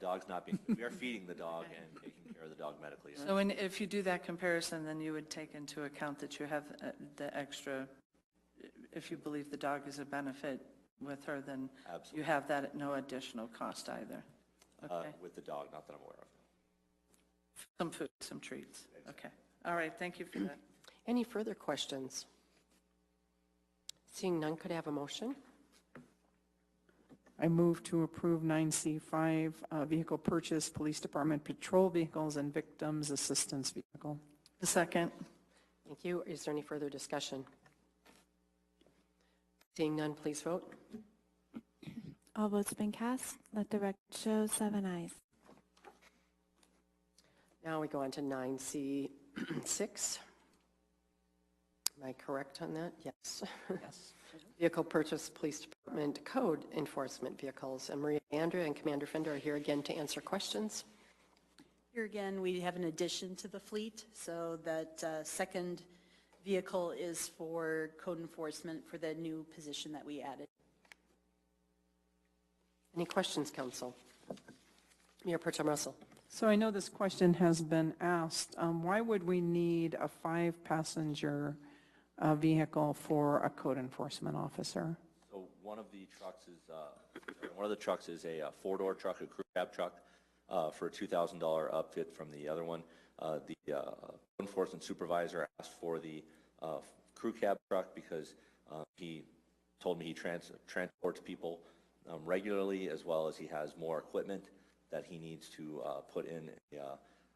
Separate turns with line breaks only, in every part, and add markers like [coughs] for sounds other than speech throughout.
dog's not being, we are feeding the dog and taking care of the dog medically.
So when, if you do that comparison, then you would take into account that you have uh, the extra, if you believe the dog is a benefit with her, then you
Absolutely.
have that at no additional cost either.
Uh,
Okay.
With the dog, not that I'm aware of.
Some food, some treats. Okay. All right, thank you for that.
Any further questions? Seeing none, could I have a motion?
I move to approve 9C5, uh, vehicle purchase, police department patrol vehicles and victims assistance vehicle.
The second,
Thank you. Is there any further discussion? Seeing none, please vote.
All votes been cast. Let the record show seven ayes.
Now we go on to [clears throat] 9C6. Am I correct on that? Yes. Yes. [laughs] Vehicle purchase, police department code enforcement vehicles. And Maria Andrea and Commander Fender are here again to answer questions.
Here again, we have an addition to the fleet, so that uh, second vehicle is for code enforcement for the new position that we added.
Any questions, council? Mayor Pertem Russell.
So I know this question has been asked, um, why would we need a five-passenger uh, vehicle for a code enforcement officer?
So one of the trucks is, uh, sorry, one of the trucks is a uh, four-door truck, a crew cab truck, uh, for a $2,000 upfit from the other one. Uh, The uh, code enforcement supervisor asked for the uh, crew cab truck because uh, he told me he trans- transports people um, regularly, as well as he has more equipment that he needs to uh, put in a uh,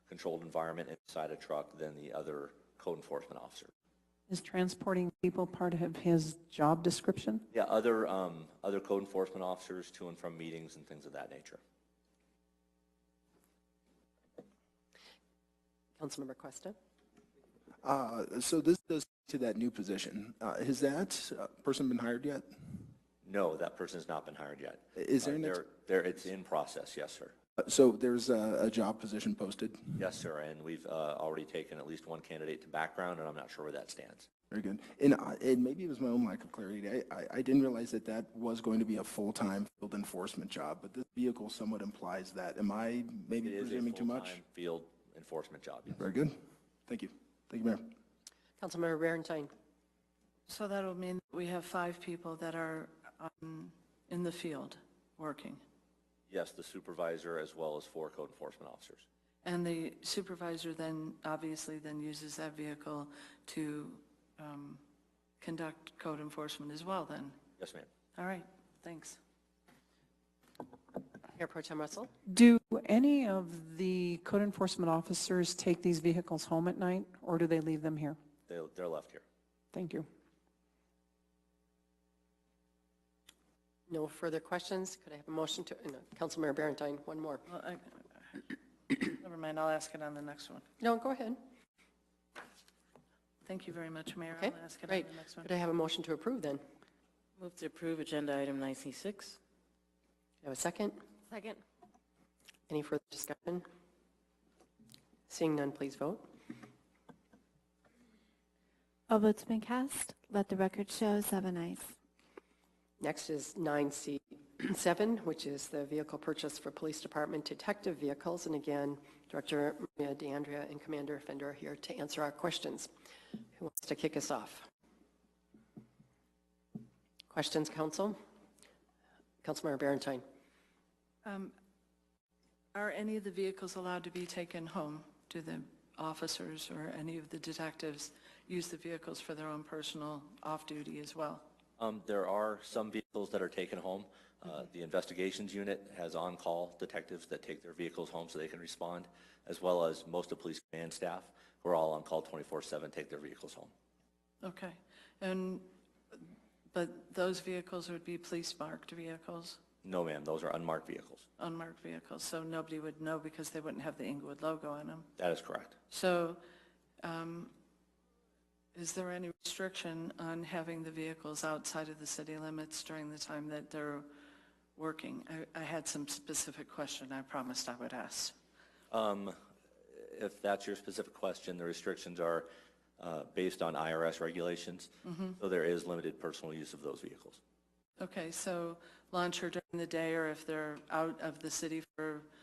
controlled environment inside a truck than the other code enforcement officer.
Is transporting people part of his job description?
Yeah, other, um, other code enforcement officers to and from meetings and things of that nature.
Councilmember Questa.
Uh, So this does to that new position. Uh, Has that uh, person been hired yet?
No, that person's not been hired yet.
Is there
Uh,
an ex-
There, there, it's in process, yes, sir.
Uh, So there's a a job position posted?
Yes, sir, and we've, uh, already taken at least one candidate to background, and I'm not sure where that stands.
Very good. And I- and maybe it was my own lack of clarity. I- I I didn't realize that that was going to be a full-time field enforcement job, but this vehicle somewhat implies that. Am I maybe
It is a
presuming too much?
full-time Field enforcement job, yes.
Very good. Thank you. Thank you, Mayor.
Councilmember Berantine.
so that'll mean we have five people that are um, in the field working.
Yes, the supervisor as well as four code enforcement officers.
And the supervisor then, obviously, then uses that vehicle to um, conduct code enforcement as well then?
Yes, ma'am.
All right, thanks.
Mayor Pertem Russell.
Do any of the code enforcement officers take these vehicles home at night, or do they leave them here?
They, they're left here.
Thank you.
No further questions. Could I have a motion to, no, Councilmember Berantine, one more.
Well, I- [coughs] Never mind, I'll ask it on the next one.
No, go ahead.
Thank you very much, Mayor.
Okay,
I'll ask it on
great.
the next one.
Could I have a motion to approve then? Could
Move to approve agenda item 9C6.
I Have a second?
Second.
Any further discussion? Seeing none, please vote.
All votes been cast. Let the record show seven ayes.
Next is 9C7, which is the vehicle purchase for police department detective vehicles. And again, Director Maria DeAndrea and Commander Fender are here to answer our questions. Who wants to kick us off? Questions, council? Councilmember Berantine.
Um, Are any of the vehicles allowed to be taken home? Do the officers or any of the detectives use the vehicles for their own personal off-duty as well?
Um, There are some vehicles that are taken home. Uh, The investigations unit has on-call detectives that take their vehicles home so they can respond, as well as most of police command staff, who are all on call 24/7, take their vehicles home.
Okay, and, but those vehicles would be police-marked vehicles,
No, ma'am, those are unmarked vehicles.
unmarked vehicles, so nobody would know because they wouldn't have the Inglewood logo on them.
That is correct.
So um, is there any restriction on having the vehicles outside of the city limits during the time that they're working? I- I had some specific question I promised I would ask.
If that's your specific question, the restrictions are uh, based on IRS regulations, so there is limited personal use of those vehicles.
Okay, so launcher during the day or if they're out of the city for